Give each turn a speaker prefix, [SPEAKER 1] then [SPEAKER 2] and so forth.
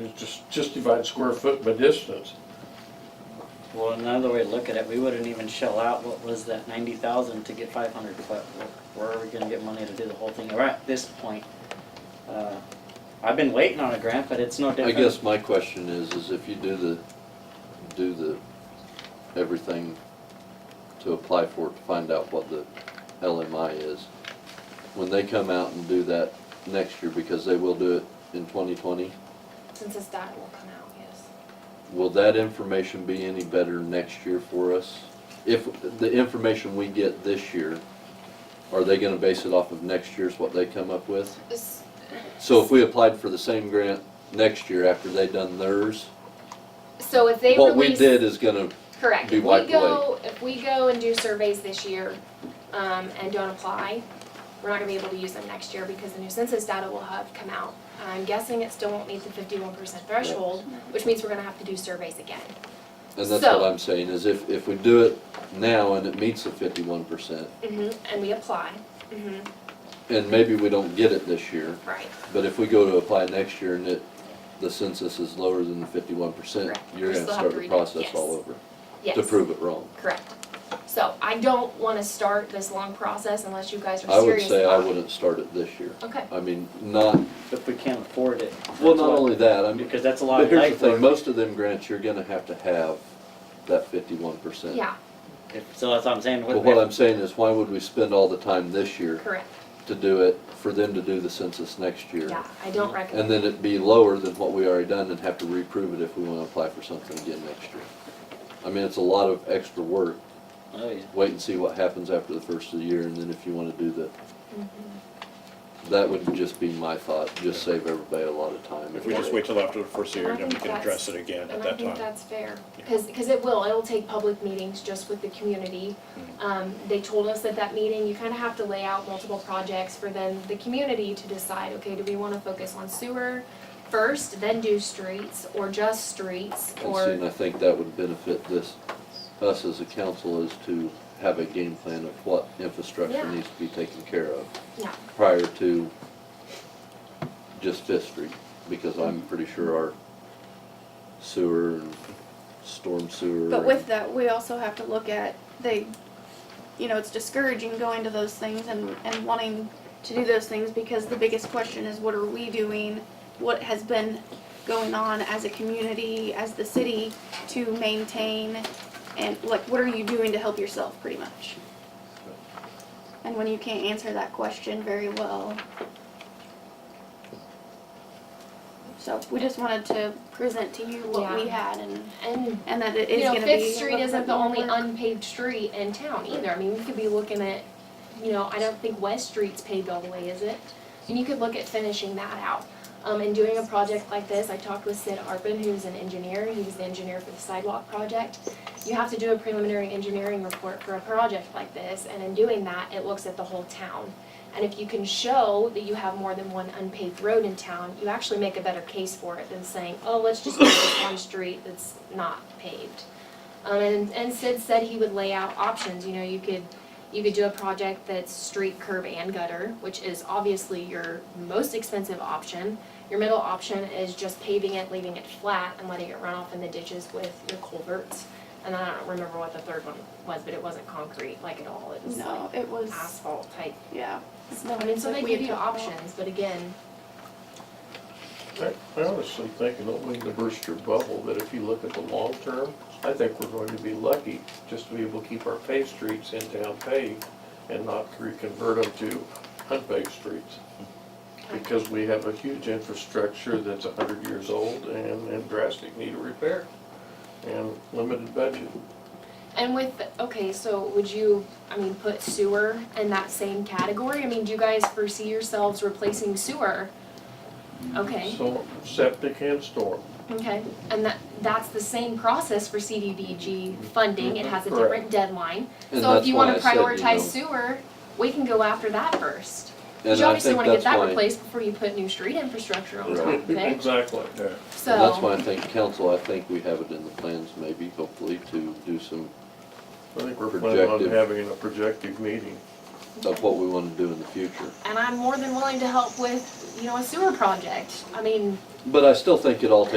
[SPEAKER 1] It's just, just divide square foot by distance.
[SPEAKER 2] Well, another way to look at it, we wouldn't even shell out what was that ninety thousand to get five hundred foot. Where are we gonna get money to do the whole thing? We're at this point. uh, I've been waiting on a grant, but it's no
[SPEAKER 3] I
[SPEAKER 2] different.
[SPEAKER 3] guess my question is, is if you do the, do the, everything to apply for it, to find out what the LMI is, when they come out and do that next year, because they will do it in twenty twenty,
[SPEAKER 4] Since this data will come out, yes.
[SPEAKER 3] will that information be any better next year for us? If the information we get this year, are they gonna base it off of next year's what they come up with?
[SPEAKER 4] This-
[SPEAKER 3] So if we applied for the same grant next year after they done theirs,
[SPEAKER 4] So if they
[SPEAKER 3] what we
[SPEAKER 4] release,
[SPEAKER 3] did is gonna
[SPEAKER 4] correct,
[SPEAKER 3] be
[SPEAKER 4] if we
[SPEAKER 3] wiped
[SPEAKER 4] go, if we go and do surveys this year, um, and don't apply, we're not gonna be able to use them next year because the new census data will have come out. I'm guessing it still won't meet the fifty-one percent threshold, which means we're gonna have to do surveys again.
[SPEAKER 3] And that's
[SPEAKER 4] So-
[SPEAKER 3] what I'm saying, is if, if we do it now and it meets the fifty-one percent,
[SPEAKER 4] And we apply, mhm,
[SPEAKER 3] and maybe we don't get it this year,
[SPEAKER 4] right,
[SPEAKER 3] but if we go to apply next year and it, the census is lower than the fifty-one percent,
[SPEAKER 4] Correct.
[SPEAKER 3] you're
[SPEAKER 4] We
[SPEAKER 3] gonna
[SPEAKER 4] still have
[SPEAKER 3] start
[SPEAKER 4] to
[SPEAKER 3] the
[SPEAKER 4] redo-
[SPEAKER 3] process
[SPEAKER 4] yes.
[SPEAKER 3] all over,
[SPEAKER 4] yes.
[SPEAKER 3] to prove it wrong.
[SPEAKER 4] Correct. So I don't wanna start this long process unless you guys
[SPEAKER 3] I
[SPEAKER 4] are
[SPEAKER 3] would
[SPEAKER 4] serious about it.
[SPEAKER 3] say I wouldn't start it this year.
[SPEAKER 4] Okay,
[SPEAKER 3] I mean, not,
[SPEAKER 2] If we can't afford it.
[SPEAKER 3] well,
[SPEAKER 2] that's
[SPEAKER 3] not
[SPEAKER 2] what-
[SPEAKER 3] only that, I mean,
[SPEAKER 2] Because that's a lot
[SPEAKER 3] but
[SPEAKER 2] of
[SPEAKER 3] here's the
[SPEAKER 2] life
[SPEAKER 3] thing,
[SPEAKER 2] work.
[SPEAKER 3] most of them grants, you're gonna have to have that fifty-one percent.
[SPEAKER 4] yeah,
[SPEAKER 2] If- So that's what I'm saying.
[SPEAKER 3] But what I'm saying is, why would we spend all the time this year
[SPEAKER 4] correct,
[SPEAKER 3] to do it, for them to do the census next year?
[SPEAKER 4] yeah, I don't recommend.
[SPEAKER 3] And then it'd be lower than what we already done and have to reprove it if we wanna apply for something again next year. I mean, it's a lot of extra work.
[SPEAKER 2] Oh, yeah.
[SPEAKER 3] Wait and see what happens after the first of the year and then if you wanna do the,
[SPEAKER 4] Mm-hmm.
[SPEAKER 3] that would just be my thought, just save everybody a lot of time.
[SPEAKER 5] If we just wait till after the first year, then we can address it again at
[SPEAKER 4] And I
[SPEAKER 5] that
[SPEAKER 4] think
[SPEAKER 5] time.
[SPEAKER 4] that's fair,
[SPEAKER 5] Yeah.
[SPEAKER 4] because, because it will, it'll take public meetings just with the community.
[SPEAKER 5] Mm-hmm.
[SPEAKER 4] Um, they told us at that meeting, you kind of have to lay out multiple projects for then the community to decide, okay, do we want to focus on sewer first, then do streets, or just streets,
[SPEAKER 3] And see,
[SPEAKER 4] or,
[SPEAKER 3] and I think that would benefit this, us as a council is to have a game plan of what infrastructure
[SPEAKER 4] Yeah.
[SPEAKER 3] needs to be taken care of
[SPEAKER 4] yeah,
[SPEAKER 3] prior to just Fifth Street, because I'm
[SPEAKER 4] Mm-hmm.
[SPEAKER 3] pretty sure our sewer and storm sewer.
[SPEAKER 6] But with that, we also have to look at they, you know, it's discouraging going to those things and, and wanting to do those things because the biggest question is what are we doing? What has been going on as a community, as the city to maintain and like what are you doing to help yourself pretty much? And when you can't answer that question very well. So we just wanted to present to you what we had and
[SPEAKER 4] and,
[SPEAKER 6] and that it is
[SPEAKER 4] you know,
[SPEAKER 6] gonna be.
[SPEAKER 4] Fifth Street
[SPEAKER 6] a little
[SPEAKER 4] isn't
[SPEAKER 6] bit
[SPEAKER 4] the only
[SPEAKER 6] more-
[SPEAKER 4] unpaved street in town either, I mean, we could be looking at, you know, I don't think West Street's paved all the way, is it? And you could look at finishing that out. Um, and doing a project like this, I talked with Sid Arpin, who's an engineer, he was the engineer for the sidewalk project. You have to do a preliminary engineering report for a project like this, and in doing that, it looks at the whole town. And if you can show that you have more than one unpaved road in town, you actually make a better case for it than saying, oh, let's just do this one street that's not paved. Um, and, and Sid said he would lay out options, you know, you could you could do a project that's street, curb, and gutter, which is obviously your most expensive option. Your middle option is just paving it, leaving it flat, and letting it run off in the ditches with your culverts. And I don't remember what the third one was, but it wasn't concrete like at all, it was like
[SPEAKER 6] No, it was,
[SPEAKER 4] asphalt type.
[SPEAKER 6] yeah.
[SPEAKER 4] No, I mean, so they
[SPEAKER 6] Like we
[SPEAKER 4] give
[SPEAKER 6] had
[SPEAKER 4] you
[SPEAKER 6] talked about.
[SPEAKER 4] options, but again,
[SPEAKER 1] I I honestly think, and don't mean to burst your bubble, that if you look at the long term, I think we're going to be lucky just to be able to keep our paved streets in town paved and not reconvert them to unpaved streets. Because we have a huge infrastructure that's a hundred years old and, and drastic need of repair and limited budget.
[SPEAKER 4] and with, okay, so would you, I mean, put sewer in that same category? I mean, do you guys foresee yourselves replacing sewer? Okay.
[SPEAKER 1] So septic and storm.
[SPEAKER 4] Okay, and that, that's the same process for CDBG funding, it has a different deadline.
[SPEAKER 3] And
[SPEAKER 4] So if
[SPEAKER 3] that's
[SPEAKER 4] you wanna
[SPEAKER 3] why I said,
[SPEAKER 4] prioritize
[SPEAKER 3] know,
[SPEAKER 4] sewer, we can go after that first. 'Cause
[SPEAKER 3] and
[SPEAKER 4] you
[SPEAKER 3] I
[SPEAKER 4] obviously
[SPEAKER 3] think
[SPEAKER 4] wanna get
[SPEAKER 3] that's
[SPEAKER 4] that
[SPEAKER 3] why-
[SPEAKER 4] replaced before you put new street infrastructure on top of it,
[SPEAKER 1] Exactly.
[SPEAKER 3] And that's why
[SPEAKER 4] so,
[SPEAKER 3] I think council, I think we have it in the plans maybe, hopefully, to do some
[SPEAKER 1] I think we're planning on
[SPEAKER 3] Projective.
[SPEAKER 1] having a projective meeting.
[SPEAKER 3] of what we wanna do in the future.
[SPEAKER 4] and I'm more than willing to help with, you know, a sewer project, I mean,
[SPEAKER 3] But I still think it all takes